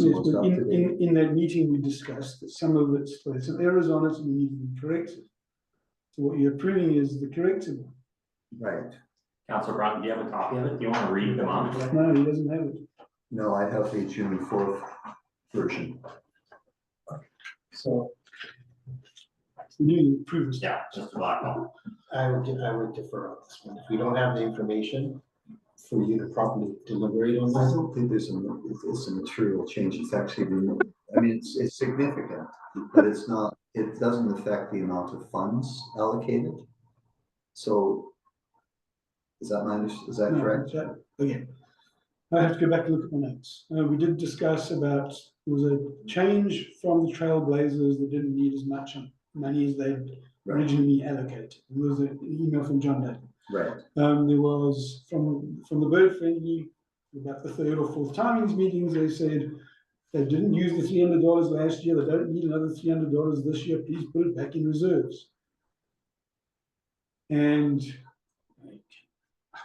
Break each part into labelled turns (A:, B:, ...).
A: Yes, but
B: stuff
A: in,
B: today.
A: in, in that meeting, we discussed that some of it's, there's some errors on it and need to be corrected. So what you're approving is the corrected one.
B: Right,
C: Council Brown, do you have a copy of it? Do you want to read them off?
A: No, he doesn't have it.
B: no, I have the June fourth version.
D: So
A: We need to approve this.
C: Yeah, just a lot of
D: I would, de- I would defer on this one. If we don't have the information for you to properly deliberate on
B: I
D: this,
B: don't think there's a, it's- it's a material change, it's actually, removed. I mean, it's, it's significant, but it's not, it doesn't affect the amount of funds allocated. So is that my, under- is that
A: No,
B: correct?
A: so- Okay. I have to go back and look at the notes. Uh, we did discuss about, there was a change from the Trailblazers that didn't need as much money as they
B: Right,
A: originally allocated. There was an email from John Day.
B: right,
A: Um, there was from, from the bird friendly, about the third or fourth time in these meetings, they said. They didn't use the three hundred dollars last year, they don't need another three hundred dollars this year, please put it back in reserves. And. like,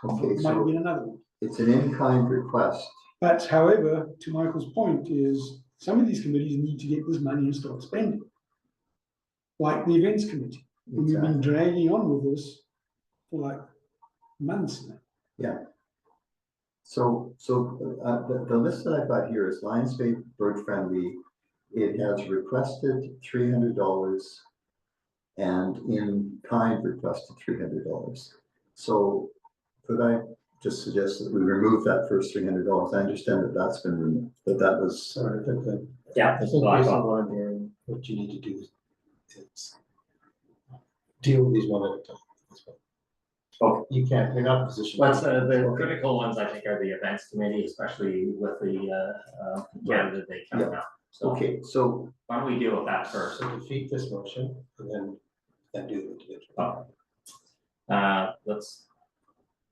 B: okay,
A: Might
B: so
A: be another one,
B: it's an in-kind request,
A: but however, to Michael's point is, some of these committees need to get this money and start spending. Like the events committee, and we've been
B: Exactly.
A: dragging on with this for like months now.
B: So, so, uh, the, the list that I've got here is Lions Bay Bird Friendly. It has requested three hundred dollars and in kind requested three hundred dollars. So could I just suggest that we remove that first three hundred dollars? I understand that that's been removed, but that was,
D: sorry, I think that,
C: Yeah,
D: I
C: just
D: think
C: a lot
D: based
C: of
D: on what I'm hearing, what you need to do is deal with these one at a time.
C: Okay.
D: You can't, you're not in a position.
C: What's the, the critical ones, I think, are the events committee, especially with the, uh, uh, candidate they come out. So
B: uh, okay, so,
C: why don't we deal with that first?
D: So defeat this motion and then, then do the individual.
C: Oh. Uh, let's.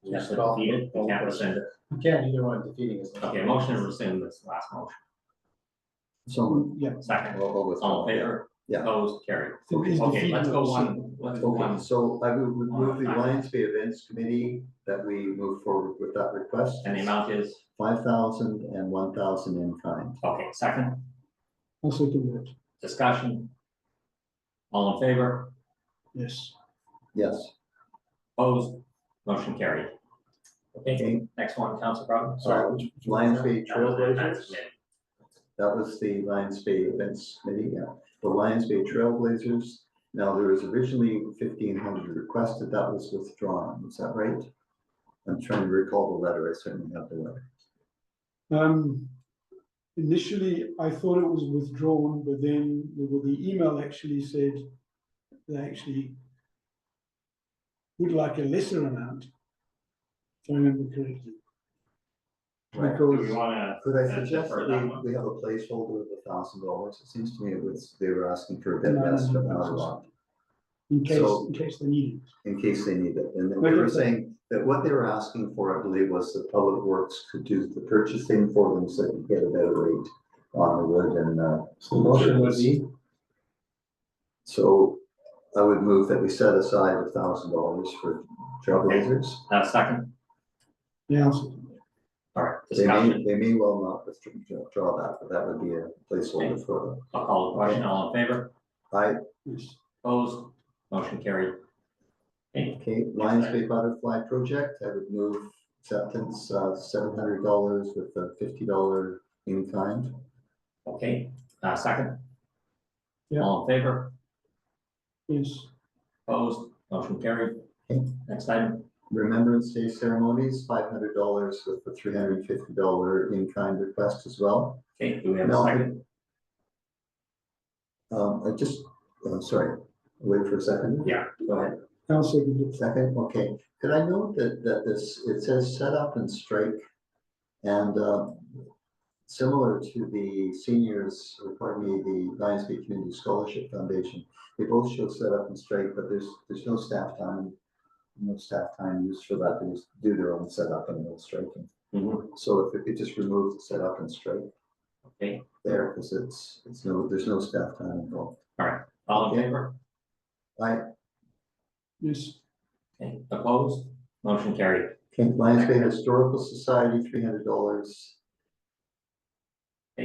C: We have to
D: Just call-
C: defeat it, we can't rescind it.
D: You can, either one defeating is.
C: Okay, motion to rescind this last motion.
B: so.
A: Yeah.
C: Second,
B: I'll go with-
C: Hmm. all in favor?
B: Yeah.
C: Opposed, carried.
A: So please
C: Okay,
A: defeat
C: let's go
A: those.
C: one, let's go
B: Okay,
C: one,
B: so I would remove the
C: Fine.
B: Lions Bay Events Committee that we move forward with that request.
C: and the amount is,
B: Five thousand and one thousand in kind.
C: okay, second,
A: I'll second that,
C: discussion. All in favor?
A: yes.
B: Yes.
C: Opposed, motion carried. Okay,
B: Okay,
C: next one, Council Brown, sorry.
B: so Uh, Lions Bay
C: That was it, that's
B: Trailblazers,
C: it.
B: that was the Lions Bay Events Committee, yeah. The Lions Bay Trailblazers, now there was originally fifteen hundred requested, that was withdrawn, is that right? I'm trying to recall the letter, I certainly have the letter.
A: Um, initially, I thought it was withdrawn, but then the, well, the email actually said they actually would like a lesser amount, if I remember correctly.
B: Right.
C: Do we
A: Because,
C: wanna,
B: Could I
C: Yeah,
B: suggest
C: defer
B: that
C: that
B: we,
C: one.
B: we have a placeholder of a thousand dollars? It seems to me it was, they were asking for a
A: No,
B: bit
A: no,
B: less,
A: no,
B: but
A: no,
B: not a
A: no.
B: lot.
A: in case,
B: So-
A: in case they need
B: in case they need it. And then
A: Like
B: they
A: I
B: were
A: said-
B: saying that what they were asking for, I believe, was that Public Works could do the purchasing for them so they could get a better rate on the wood and, uh,
D: So the motion would be,
B: so I would move that we set aside a thousand dollars for trailblazers.
C: uh, second,
A: it. Yeah, I'll second that.
C: all right,
B: They may,
C: discussion,
B: they may well not withdraw draw that, but that would be a placeholder for them.
C: I'll call the question, all in favor?
B: I,
A: yes.
C: Opposed, motion carried. Okay,
B: okay, Lions Bay Butterfly Project, I would move acceptance, uh, seven hundred dollars with a fifty dollar in kind.
C: okay, uh, second.
A: Yeah.
C: All in favor,
A: Yes,
C: opposed, motion carried.
B: Okay.
C: Next item,
B: Remembrance Day ceremonies, five hundred dollars with the three hundred and fifty dollar in-kind request as well.
C: okay, do we have a
B: No.
C: second?
B: Um, I just, I'm sorry, wait for a second.
C: Yeah, go ahead.
A: I'll second it.
B: Second, okay. Could I note that, that this, it says set up and strike? And, uh, similar to the seniors, or pardon me, the Lions Bay Community Scholarship Foundation, they both show set up and strike, but there's, there's no staff time, no staff time used for that. They just do their own setup and no striking.
C: Mhm,
B: So if it could just remove the setup and strike
C: Okay,
B: there, because it's, it's no, there's no staff time involved.
C: all in
B: Okay.
C: favor,
B: I,
A: Yes,
C: okay, opposed, motion carried.
B: Kent Lions Bay Historical Society, three hundred dollars.